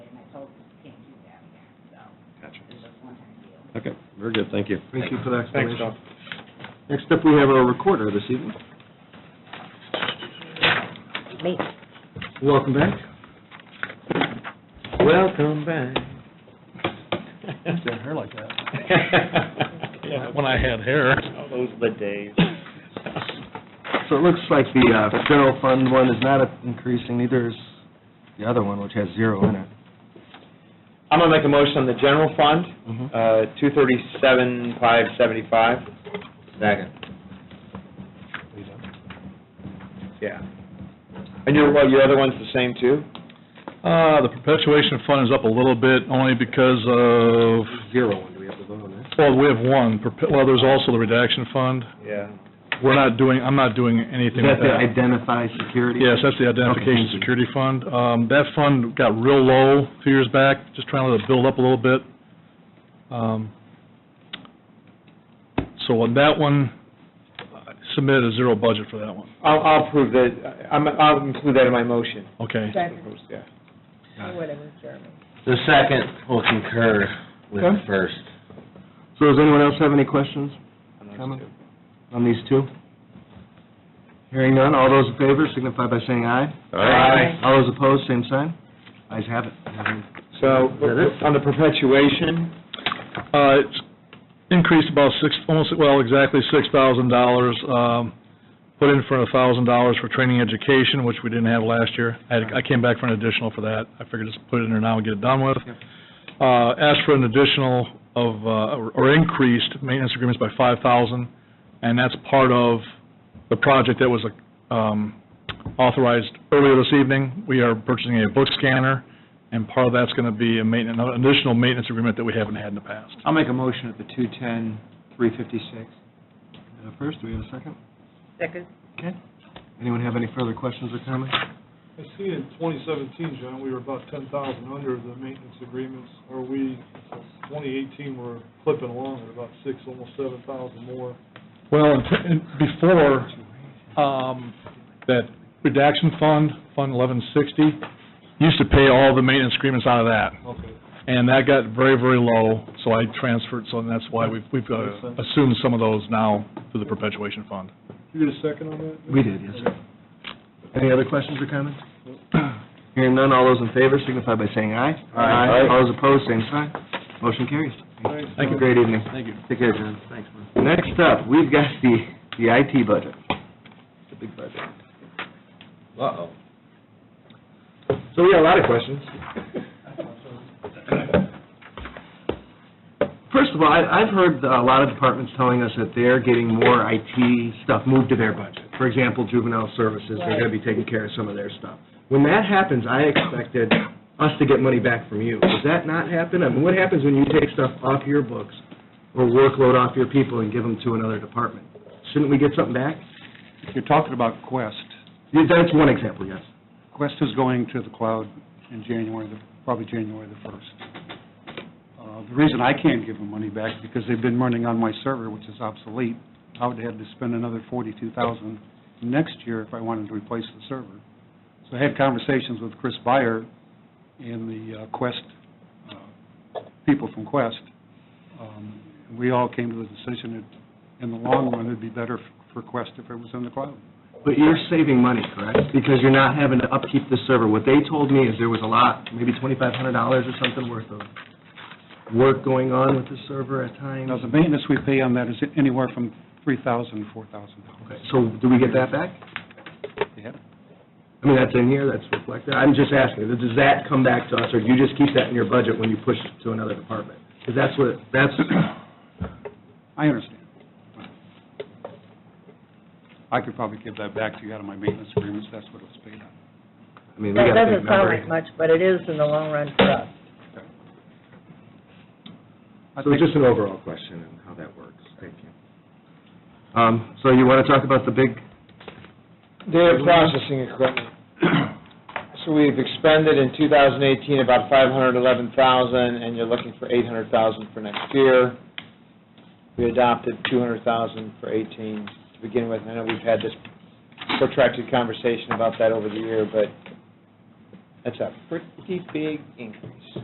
Okay, very good, thank you. Thank you for that Thanks, explanation. Tom. Next up, we have our recorder this evening. Me. Welcome back. Welcome back. hair like that. Yeah, when I had hair. Oh, Those were the days. So it looks like the uh, general fund one is not increasing, neither is the other one, which has zero in it. I'm gonna make a motion on the general fund, Mm-hmm. uh, two thirty-seven, five seventy-five. Second. Yeah. And your, well, your other one's the same too? Uh, the perpetuation fund is up a little bit, only because of, Zero one, do we have to vote on that? well, we have one, perpe- well, there's also the redaction fund. Yeah. We're not doing, I'm not doing anything Is that with the that. identify security? Yes, that's the identification Okay. security fund. Um, that fund got real low a few years back, just trying to build up a little bit. Um, so on that one, I submitted a zero budget for that one, I'll, I'll approve that, I'm, I'll include that in my motion. okay? Second, Yeah. or whatever, Jeremy. The second will concur with the Okay. first. So does anyone else have any questions on those Comment? two. on these two? Hearing none, all those in favor signify by saying aye. Aye. All those opposed, same sign. Ayes have it. So, on the perpetuation, Uh, It's increased about six, almost, well, exactly six thousand dollars. um, Put in for a thousand dollars for training education, which we didn't have last year. I had- I came back for an additional for that. I figured just put it in there now and get it done with. Uh, Asked for an additional of, uh, or- or increased maintenance agreements by five thousand, and that's part of the project that was um, authorized earlier this evening. We are purchasing a book scanner, and part of that's going to be a maintenance, an additional maintenance agreement that we haven't had in the past. I'll make a motion at the two-ten, three-fifty-six. First, do we have a second? Second. Okay. Anyone have any further questions or comments? I see in 2017, John, we were about 10,000 under the maintenance agreements, or we, 2018, we're clipping along at about six, almost 7,000 more. Well, and- and before, um, that redaction fund, Fund 1160, used to pay all the maintenance agreements out of that, Okay. and that got very, very low, so I transferred, so that's why we've, we've uh, Makes sense. assumed some of those now through the perpetuation fund. You get a second on that? We did, yes, sir. Any other questions or comments? Hearing none, all those in favor signify by saying aye. Aye. All those opposed, same sign. Motion carries. Thanks, Have a John. great evening. Thank you. Take care, John. Thanks, man. Next up, we've got the, the IT budget. It's a big budget. Uh-oh. so we got a lot of questions. First of all, I- I've heard a lot of departments telling us that they're getting more IT stuff moved to their budget. For example, juvenile services, they're going to be taking care of some of their stuff. When that happens, I expected us to get money back from you. Does that not happen? I mean, what happens when you take stuff off your books or workload off your people and give them to another department? Shouldn't we get something back? You're talking about Quest. Yeah, That's one example, yes. Quest is going to the cloud in January, the- probably January the 1st. Uh, The reason I can't give them money back, is because they've been running on my server, which is obsolete. I would have to spend another 42000 next year if I wanted to replace the server. So I had conversations with Chris Byer and the uh, Quest, uh, people from Quest. Um, and We all came to the decision that, in the long run, it'd be better f- for Quest if it was in the cloud. But you're saving money, correct? Because you're not having to upkeep the server. What they told me is there was a lot, maybe twenty-five hundred dollars or something worth of work going on with the server at times. Now, the maintenance we pay on that is anywhere from $3,000 to $4,000. Okay, So do we get that back? Yeah. I mean, that's in here, that's reflected. I'm just asking, does that come back to us, or do you just keep that in your budget when you push it to another department? Because that's what, that's, I understand. I could probably give that back to you out of my maintenance agreements, that's what it was paid on. I mean, we That got a big doesn't sound number. like much, but it is in the long run for us. I So think- just an overall question on how that works. Thank you. Um, so you want to talk about the big Data processing equipment. So we've expended in 2018 about 511,000, and you're looking for 800,000 for next year. We adopted 200,000 for 18 to begin with. I know we've had this protracted conversation about that over the year, but that's a pretty big increase.